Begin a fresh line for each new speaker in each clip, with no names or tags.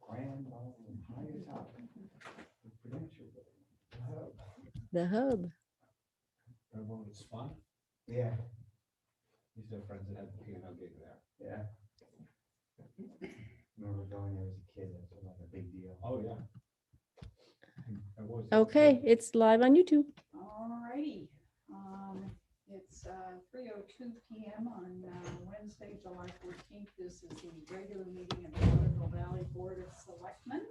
grand old high top. The Prudential Building. Oh,
The hub.
Everyone was fun.
Yeah,
These are friends that had the piano gig there.
yeah. Remember going there as a kid, that's like a big deal.
Oh, yeah. It was.
Okay, it's live on YouTube.
Alrighty, um, it's, uh, three oh two P M on, uh, Wednesday, July fourteenth. This is the regular meeting of the Waterville Valley Board of Selectmen.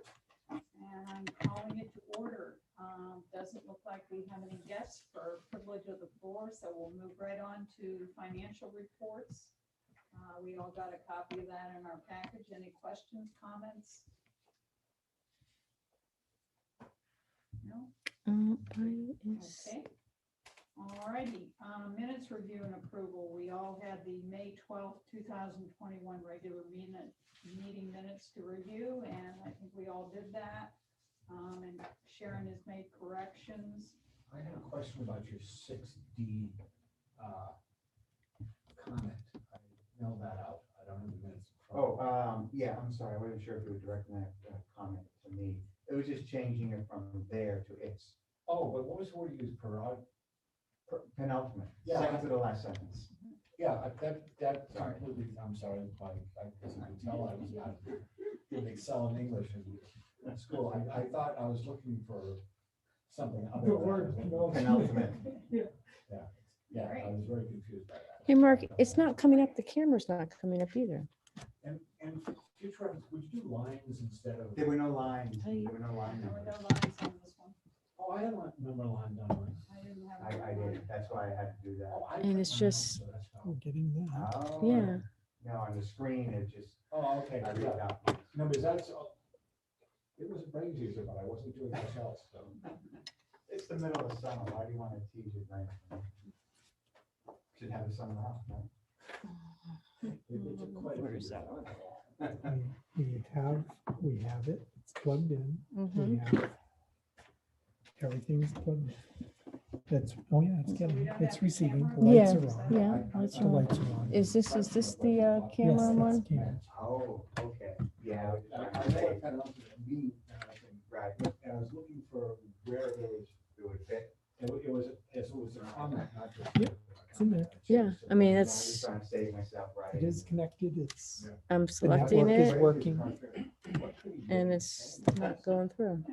And I'm calling it to order. Um, doesn't look like we have any guests for privilege of the floor, so we'll move right on to financial reports. Uh, we all got a copy of that in our package. Any questions, comments? No?
Um,
Okay. Alrighty, um, minutes review and approval. We all had the May twelfth, two thousand twenty-one regular meeting, meeting minutes to review, and I think we all did that. Um, and Sharon has made corrections.
I had a question about your six D, uh, comment. I mailed that out. I don't have the minutes. in front of
Oh, um, yeah, I'm sorry, I wasn't sure if you were directing that uh, comment to me. It was just changing it from there to its
me. Oh, but what was the word you used, parod?
per- penultimate,
Yeah.
second to the last sentence.
Yeah, I- that, that
Sorry.
completely, I'm sorry, I, I, as you can tell, I was not in Excel in English in school. I, I thought I was looking for something. other
The
than-
word
Penultimate.
Yeah, I was very confused by that.
Hey, Mark, it's not coming up. The camera's not coming up either.
And, and for future, reference, would you do lines instead of?
There were no lines,
Hey.
there were no line
There were no
numbers.
lines on this one.
Oh, I had a number line down. right?
I didn't have.
I, I
it on.
did, that's why I had to do that.
Oh, I
And
print
it's
mine out,
just-
so that's how-
We're getting that.
Oh,
Yeah.
No, on the screen, it just,
Oh, okay,
I read
yeah.
out.
No, because that's, all- it was a brain teaser, but I wasn't doing much else, so.
It's the middle of summer, why do you want to tease it night? Should have the summer off, no?
it- it took quite a
Where
few
is that
years.
We we have, we have it, it's plugged in,
Mhm.
we have, everything's plugged. in. That's, oh yeah, it's
So we
getting,
don't have
it's
the
receiving,
camera?
the lights
Yeah,
are on.
yeah,
I- I-
lights
The
are on.
lights are on.
Is this, is this the uh,
Yes,
camera
that's
one?
Karen.
Oh, okay, yeah.
I- I know I kind of looked at me, and I think,
Right,
and I was looking for where it was,
it would fit.
it wa- it was, it was a comment, not just.
Yep, it's in there.
Yeah, I mean,
No, I'm
that's-
just trying to save myself, right?
It is connected, it's,
Yeah.
I'm selecting
network is
it
working.
and it's not going through.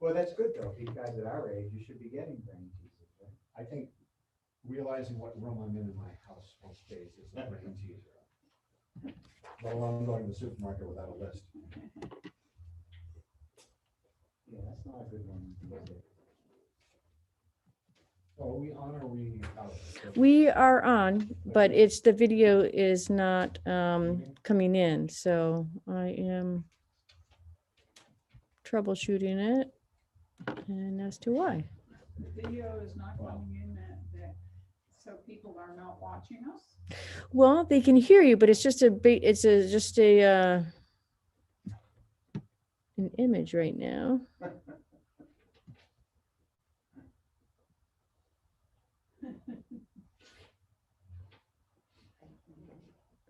Well, that's good though, because at our age, you should be getting brain teasers, right?
I think realizing what room I'm in in my house most days is a brain teaser. Let alone going to the supermarket without a list.
Yeah, that's not a good one. is it?
Well, are we on or are we out?
We are on, but it's, the video is not um, coming in, so I am troubleshooting it and as to why.
The Video is not
Wow.
coming in that, that, so people are not watching us.
Well, they can hear you, but it's just a big, it's a, just a, uh, an image right now.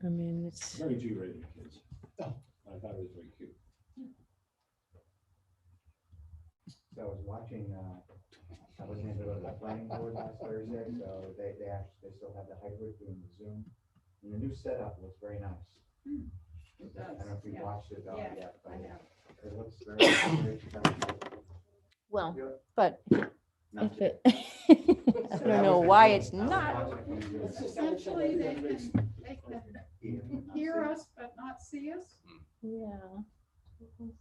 I mean, it's,
Very G rated kids. I thought it was very cute.
So I was watching, uh, I was in the planning board last Thursday, so they, they actually, they still have the hybrid doing the Zoom. And the new setup looks very nice.
It
I don't
does,
know if you
yeah.
watched it all
Yeah,
yet, but
I have.
it looks very, very professional.
well,
Yeah.
but
Not
Uh, if
yet.
it, I don't know why it's not.
Essentially, they can, they can hear us but not see us.
Yeah.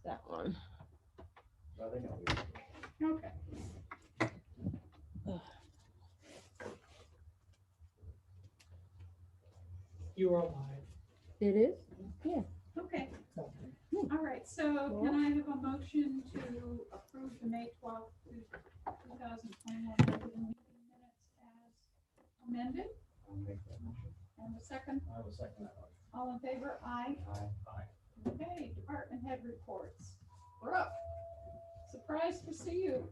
That one.
Okay.
You are live.
It is?
Okay, all right, so can I have a motion to approve the May twelfth, two thousand twenty-one minutes as amended?
I'll make that motion.
And the second,
I will second that one.
all in favor, aye.
Aye.
Okay, department head reports. Brooke, surprised to see you.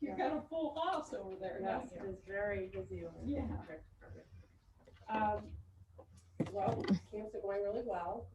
You got a full house over there,
Yes,
haven't
it
you?
was very busy. over
Yeah.
there. Um, Well, camps are going really well.